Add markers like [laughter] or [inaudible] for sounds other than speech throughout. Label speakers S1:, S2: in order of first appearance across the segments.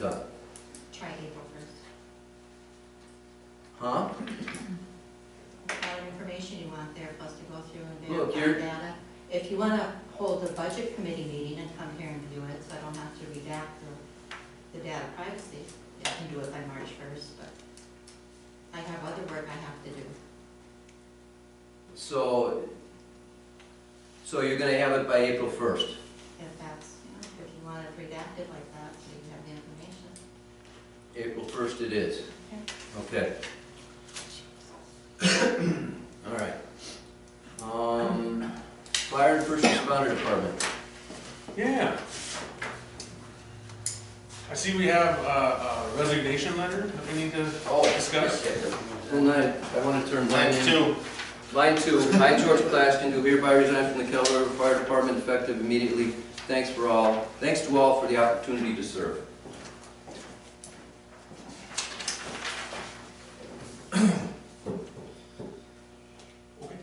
S1: Done.
S2: Try April first.
S1: Huh?
S2: All the information you want there, plus to go through and
S1: Look,
S2: verify
S1: you're-
S2: data. If you wanna hold a budget committee meeting and come here and do it, so I don't have to redact the, the data privacy, I can do it by March first, but I have other work I have to do.
S1: So, so you're gonna have it by April first?
S2: If that's, you know, if you want it redacted like that, so you have the information.
S1: April first it is? Okay. [coughs] All right. Um, fire and first responder department.
S3: Yeah. I see we have a a resignation letter that we need to
S1: Oh,
S3: discuss.
S1: And I, I wanna turn mine in.
S3: Two.
S1: Line two, I, George Plaskin, do hereby resign from the Kettle River Fire Department effective immediately. Thanks for all, thanks to all for the opportunity to serve.
S3: Okay.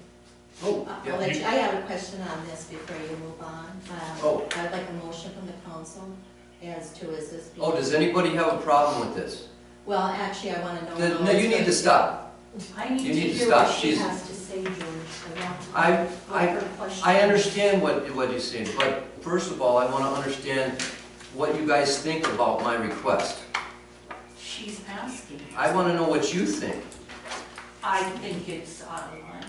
S1: Oh,
S2: Uh, I'll
S1: yeah.
S2: let you, I have a question on this before you move on. Um,
S1: Oh.
S2: I'd like a motion from the council as to, is this?
S1: Oh, does anybody have a problem with this?
S2: Well, actually, I wanna know.
S1: Then-
S2: how
S1: No,
S2: it's
S1: you need
S2: going
S1: to stop.
S4: I need
S1: You
S4: to
S1: need to
S4: hear
S1: stop.
S4: what she
S1: She's-
S4: has to say, George. I want to.
S1: I, I,
S4: her question.
S1: I understand what, what you're saying, but first of all, I want to understand what you guys think about my request.
S4: She's asking.
S1: I want to know what you think.
S4: I think it's out of line.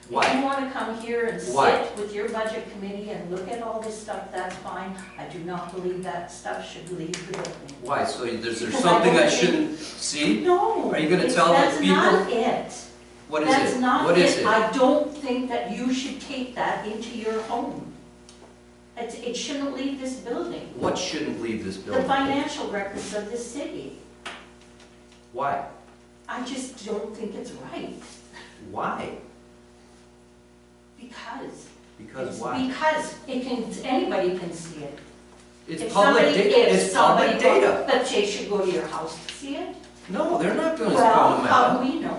S4: If
S1: Why?
S4: you wanna come here and
S1: Why?
S4: sit with your budget committee and look at all this stuff, that's fine. I do not believe that stuff should leave the building.
S1: Why? So there's, there's
S4: Because I
S1: something I
S4: don't think-
S1: shouldn't see?
S4: No.
S1: Are you gonna
S4: it's-
S1: tell the people-
S4: That's not it.
S1: What is
S4: That's
S1: it?
S4: not
S1: What is it?
S4: I don't think that you should take that into your home. It, it shouldn't leave this building.
S1: What shouldn't leave this
S4: The
S1: building?
S4: financial records of this city.
S1: Why?
S4: I just don't think it's right,
S1: Why?
S4: because.
S1: Because
S4: it's-
S1: why?
S4: Because it can, anybody can see it.
S1: It's
S4: If
S1: public
S4: somebody-
S1: data,
S4: if
S1: it's public
S4: somebody go-
S1: data.
S4: But they should go to your house to see it.
S1: No, they're not doing this
S4: Well,
S1: problem
S4: how do we know?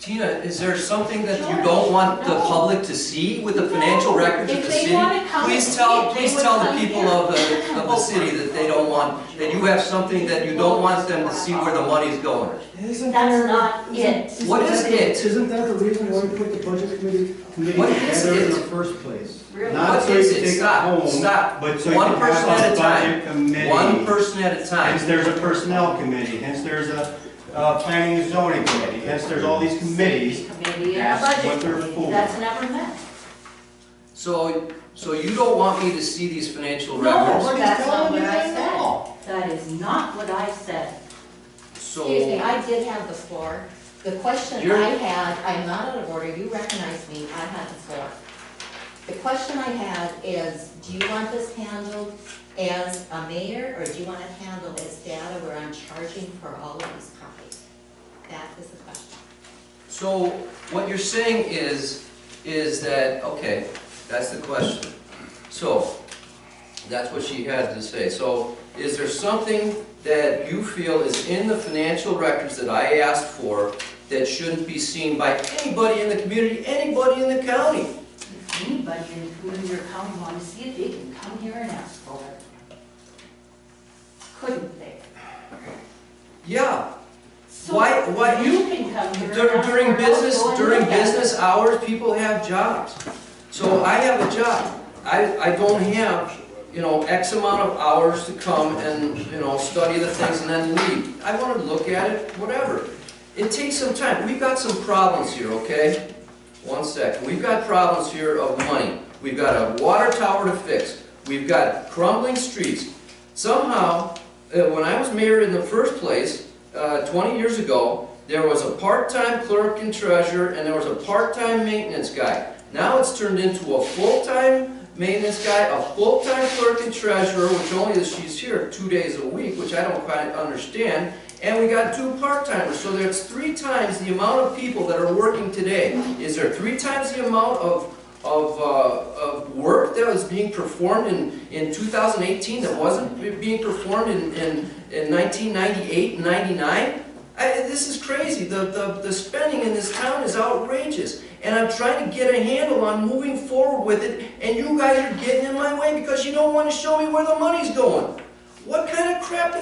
S1: Tina, is there something that you
S4: George,
S1: don't want the
S4: no.
S1: public to see with the financial
S4: No.
S1: records of
S4: If
S1: the
S4: they
S1: city?
S4: wanna come
S1: Please
S4: and
S1: tell,
S4: see it, they
S1: please
S4: would
S1: tell the
S4: come
S1: people
S4: here.
S1: of the, of the city that they don't want, that you have something that you don't want them to see where the money's going.
S5: Isn't
S4: That's
S5: there-
S4: not
S5: isn't-
S4: it.
S5: isn't
S1: What is
S5: that-
S1: it?
S5: Isn't that the reason why we put the budget committee, committee
S1: What is
S5: together in
S1: it?
S5: the first place?
S4: Really?
S1: What
S6: Not so
S1: is
S6: you
S1: it?
S6: can take it
S1: Stop,
S6: home,
S1: stop.
S6: but so you
S1: One
S6: can
S1: person at
S6: have
S1: a
S6: a
S1: time.
S6: budget committee.
S1: One person at a
S6: Hence,
S1: time.
S6: there's a personnel committee, hence there's a, uh, planning and zoning committee, hence there's all these committees.
S4: Committee and a
S6: That's
S4: budget
S6: what they're
S4: committee,
S6: for.
S4: that's never met.
S1: So, so you don't want me to see these financial
S4: No,
S1: records?
S4: that's not what I said. That is not what I said.
S2: Excuse me,
S1: So,
S2: I did have the floor. The question
S1: You're-
S2: I had, I'm not out of order, you recognize me, I had the floor. The question I had is, do you want this handled as a mayor, or do you want it handled as data where I'm charging for all of these copies? That is the question.
S1: so what you're saying is, is that, okay, that's the question. So, that's what she had to say. So, is there something that you feel is in the financial records that I asked for that shouldn't be seen by anybody in the community, anybody in the county?
S4: If anybody in the community or county wanna see it, they can come here and ask for it. Couldn't they?
S1: Yeah,
S4: So
S1: Why- why-
S4: You can come here and
S1: Dur-
S4: ask for
S1: during
S4: it, I'll
S1: business,
S4: go and
S1: during
S4: look at it.
S1: business hours, people have jobs. So I have a job. I, I don't have, you know, X amount of hours to come and, you know, study the things and then leave. I want to look at it, whatever. It takes some time. We've got some problems here, okay? One second. We've got problems here of money. We've got a water tower to fix. We've got crumbling streets. Somehow, uh, when I was mayor in the first place, uh, 20 years ago, there was a part-time clerk and treasurer, and there was a part-time maintenance guy. Now it's turned into a full-time maintenance guy, a full-time clerk and treasurer, which only is, she's here two days a week, which I don't quite understand, and we got two part-timers, so there's three times the amount of people that are working today. Is there three times the amount of, of, uh, of work that was being performed in, in 2018 that wasn't be- being performed in, in, in 1998 and 99? I, this is crazy. The, the, the spending in this town is outrageous. And I'm trying to get a handle on moving forward with it, and you guys are getting in my way because you don't want to show me where the money's going. What kind of crap